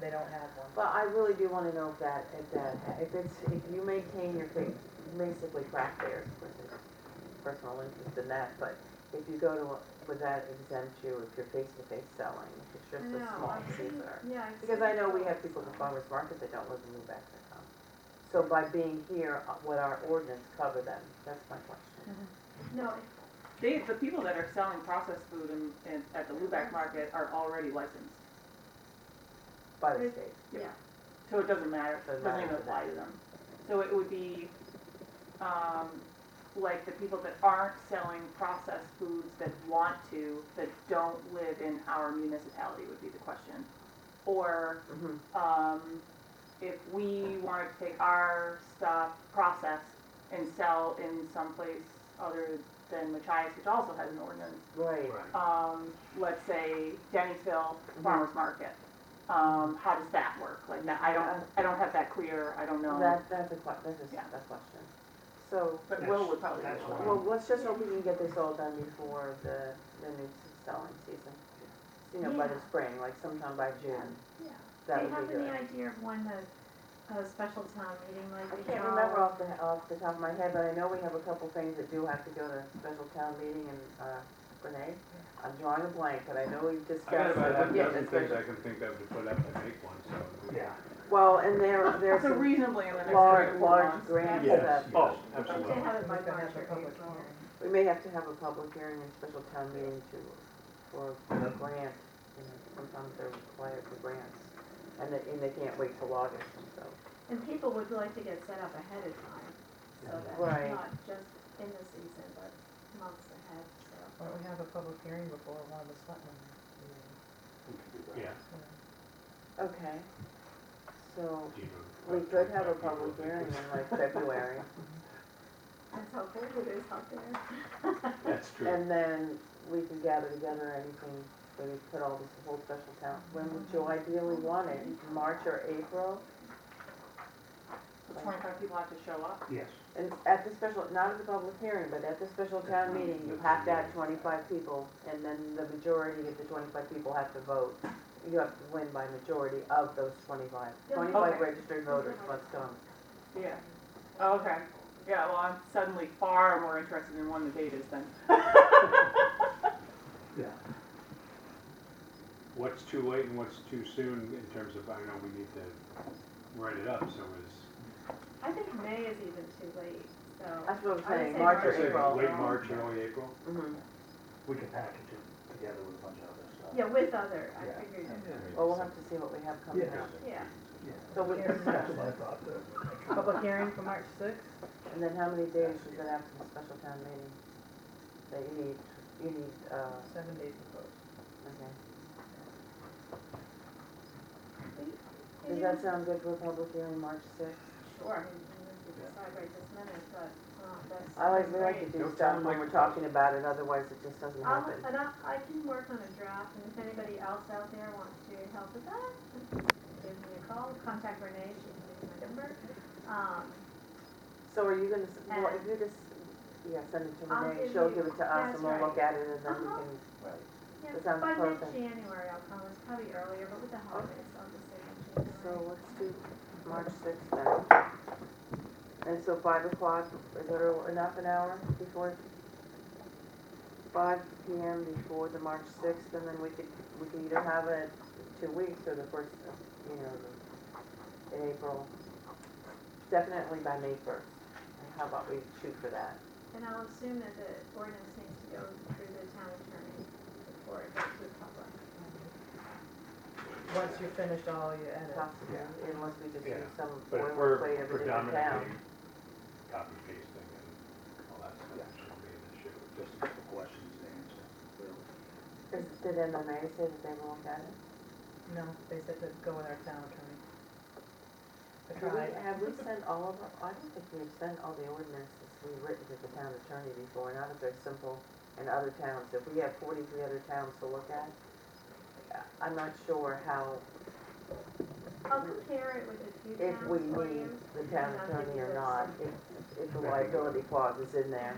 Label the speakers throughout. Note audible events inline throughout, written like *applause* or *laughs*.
Speaker 1: they don't have one.
Speaker 2: But I really do wanna know if that, if that, if it's, if you maintain your, fa- basically craft fairs, which is personal interest in that, but if you go to, a- would that exempt you if you're face-to-face selling, if it's just a
Speaker 3: No,
Speaker 2: small
Speaker 3: I've seen-
Speaker 2: paper?
Speaker 3: Yeah.
Speaker 2: Because I know we have people at the farmer's market that don't live in Lubec that come. So by being here, uh, would our ordinance cover them? That's my question.
Speaker 3: No,
Speaker 4: They, the people that are selling processed food in, in, at the Lubac market are already licensed,
Speaker 2: By the
Speaker 3: With-
Speaker 2: state,
Speaker 3: yeah,
Speaker 4: so it doesn't matter,
Speaker 2: Doesn't
Speaker 4: doesn't
Speaker 2: matter
Speaker 4: even
Speaker 2: to
Speaker 4: apply to
Speaker 2: them.
Speaker 4: them. So it would be, um, like the people that aren't selling processed foods that want to, that don't live in our municipality would be the question. Or
Speaker 2: Mhm.
Speaker 4: um, if we wanted to take our stuff, process, and sell in some place other than Machias, which also has an ordinance,
Speaker 2: right.
Speaker 4: um, let's say Denny'sville
Speaker 2: Mm-hmm.
Speaker 4: Farmers Market, um, how does that work? Like that, I don't, I don't have that clear, I don't know.
Speaker 2: That, that's a que, that's a,
Speaker 4: Yeah.
Speaker 2: that's a question. So,
Speaker 4: But Will would probably.
Speaker 5: That's- that's
Speaker 4: know.
Speaker 2: well, let's just hope we can get this all done before the, the new selling season. You know, by the
Speaker 3: Yeah.
Speaker 2: spring, like sometime by June,
Speaker 3: yeah.
Speaker 2: that
Speaker 3: They
Speaker 2: would
Speaker 3: have
Speaker 2: be
Speaker 3: any
Speaker 2: good.
Speaker 3: idea of when the, a special town meeting
Speaker 2: I
Speaker 3: might be
Speaker 2: can't
Speaker 3: held?
Speaker 2: remember off the, off the top of my head, but I know we have a couple things that do have to go to special town meeting and, uh, Renee? I'm drawing a blank, but I know we've
Speaker 6: I got
Speaker 2: discussed.
Speaker 6: about half a
Speaker 2: Yeah,
Speaker 6: dozen
Speaker 2: it's
Speaker 6: things
Speaker 2: good.
Speaker 6: I can think of to put up and make one, so.
Speaker 5: Yeah.
Speaker 2: Well, and there, there's
Speaker 4: So
Speaker 2: some
Speaker 4: reasonably in the next. couple
Speaker 2: large,
Speaker 4: of
Speaker 2: large
Speaker 4: months.
Speaker 2: grants
Speaker 5: Yes,
Speaker 2: that
Speaker 5: Oh,
Speaker 3: They should
Speaker 5: absolutely.
Speaker 3: have it by
Speaker 1: We're gonna
Speaker 3: March
Speaker 1: have
Speaker 3: or
Speaker 1: a public
Speaker 3: April.
Speaker 1: hearing.
Speaker 2: We may have to have a public hearing and special town meeting to, for a grant, you know, sometimes they're required for grants. And they, and they can't wait till August, and so.
Speaker 3: And people would like to get set up ahead of time, so that
Speaker 2: Right.
Speaker 3: it's not just in the season, but months ahead, so.
Speaker 1: Why don't we have a public hearing before one of the selectmen? meetings?
Speaker 5: Yeah.
Speaker 2: Okay, so
Speaker 5: Do you know-
Speaker 2: we could have a public hearing in like February,
Speaker 3: That's how big it is out there. *laughs*
Speaker 5: That's true.
Speaker 2: and then we can gather together anything, so we put all this whole special town. When would you ideally want it, March or April?
Speaker 4: So Twenty-five people have to show up.
Speaker 5: Yes.
Speaker 2: And at the special, not at the public hearing, but at the special town meeting, you have to have twenty-five people, and then the majority of the twenty-five people have to vote. You have to win by majority of those 25. 25
Speaker 3: Yeah.
Speaker 4: Okay.
Speaker 2: registered voters must come.
Speaker 4: Yeah. Oh, okay. Yeah, well, I'm suddenly far more interested in when the date is then.
Speaker 6: What's too late and what's too soon in terms of, I know we need to write it up, so is,
Speaker 3: I think May is even too late, so.
Speaker 2: That's what I'm
Speaker 3: I would
Speaker 2: saying,
Speaker 3: say
Speaker 2: March or
Speaker 3: March.
Speaker 2: April.
Speaker 6: late March, early April?
Speaker 2: Mhm.
Speaker 7: We can package it together with a bunch of other stuff.
Speaker 3: Yeah, with other, I
Speaker 7: Yeah.
Speaker 3: figured,
Speaker 2: Well, we'll have to see what we have coming
Speaker 7: Yeah.
Speaker 2: up.
Speaker 3: yeah.
Speaker 7: Yeah.
Speaker 2: So we can discuss
Speaker 7: That's what I
Speaker 2: it.
Speaker 7: thought, uh, though.
Speaker 1: Public hearing for March sixth?
Speaker 2: And then how many days is it after the special town meeting? That you need, you need, uh,
Speaker 1: Seven days proposed.
Speaker 2: okay.
Speaker 3: Did
Speaker 2: Does
Speaker 3: you-
Speaker 2: that sound good for a public hearing, March sixth?
Speaker 3: Sure, I mean, we need to decide right this minute, but, um, that's.
Speaker 2: I like, we
Speaker 3: that's
Speaker 2: like to
Speaker 3: great.
Speaker 2: do
Speaker 6: Don't
Speaker 2: stuff
Speaker 6: sound
Speaker 2: when
Speaker 6: like-
Speaker 2: we're talking about it, otherwise it just doesn't
Speaker 3: I'll,
Speaker 2: happen.
Speaker 3: and I, I can work on a draft, and if anybody else out there wants to help with that, give me a call, contact Renee, she can give me my number. Um,
Speaker 2: So are you gonna, s- well,
Speaker 3: And-
Speaker 2: if you just, yeah, send it to
Speaker 3: I'll
Speaker 2: Renee,
Speaker 3: give
Speaker 2: she'll
Speaker 3: you-
Speaker 2: give it to us
Speaker 3: that's
Speaker 2: and we'll look at it and then we
Speaker 3: Uh-huh.
Speaker 2: can,
Speaker 3: yeah,
Speaker 2: That sounds
Speaker 3: by
Speaker 2: perfect.
Speaker 3: mid-January I'll come, it's probably earlier, but with the holidays, I'll just say
Speaker 2: so
Speaker 3: mid-January.
Speaker 2: let's do March sixth then. And so five o'clock, is there enough an hour before? Five P M before the March sixth and then we could, we could either have it two weeks or the first, of, you know, the- in April. Definitely by May first. How about we shoot for that?
Speaker 3: And I'll assume that the ordinance needs to go through the town attorney before it goes to the public.
Speaker 1: Once you finish all your edits.
Speaker 2: Possibly, unless we just do
Speaker 6: Yeah.
Speaker 2: some
Speaker 6: But if we're
Speaker 2: boilerplate of a different town.
Speaker 6: predominantly copy pasting and all that stuff,
Speaker 7: Yeah.
Speaker 6: it shouldn't be an issue.
Speaker 7: Just a couple questions to answer. really.
Speaker 2: Is, did MMA say that they won't get it?
Speaker 1: No, they said to go with our town attorney. I
Speaker 2: Do we-
Speaker 1: tried.
Speaker 2: Have we sent all of our, I don't think we've sent all the ordinances we've written to the town attorney before, not if they're simple in other towns. If we have forty-three other towns to look at, uh, I'm not sure how,
Speaker 3: I'll compare it with the few
Speaker 2: if we
Speaker 3: towns for
Speaker 2: need
Speaker 3: you.
Speaker 2: the town
Speaker 3: Yeah, I think
Speaker 2: attorney or
Speaker 3: that's
Speaker 2: not, if, if the liability clause is in there.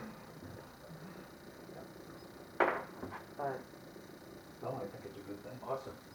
Speaker 2: But
Speaker 7: No, I think it's a good thing.
Speaker 6: Awesome.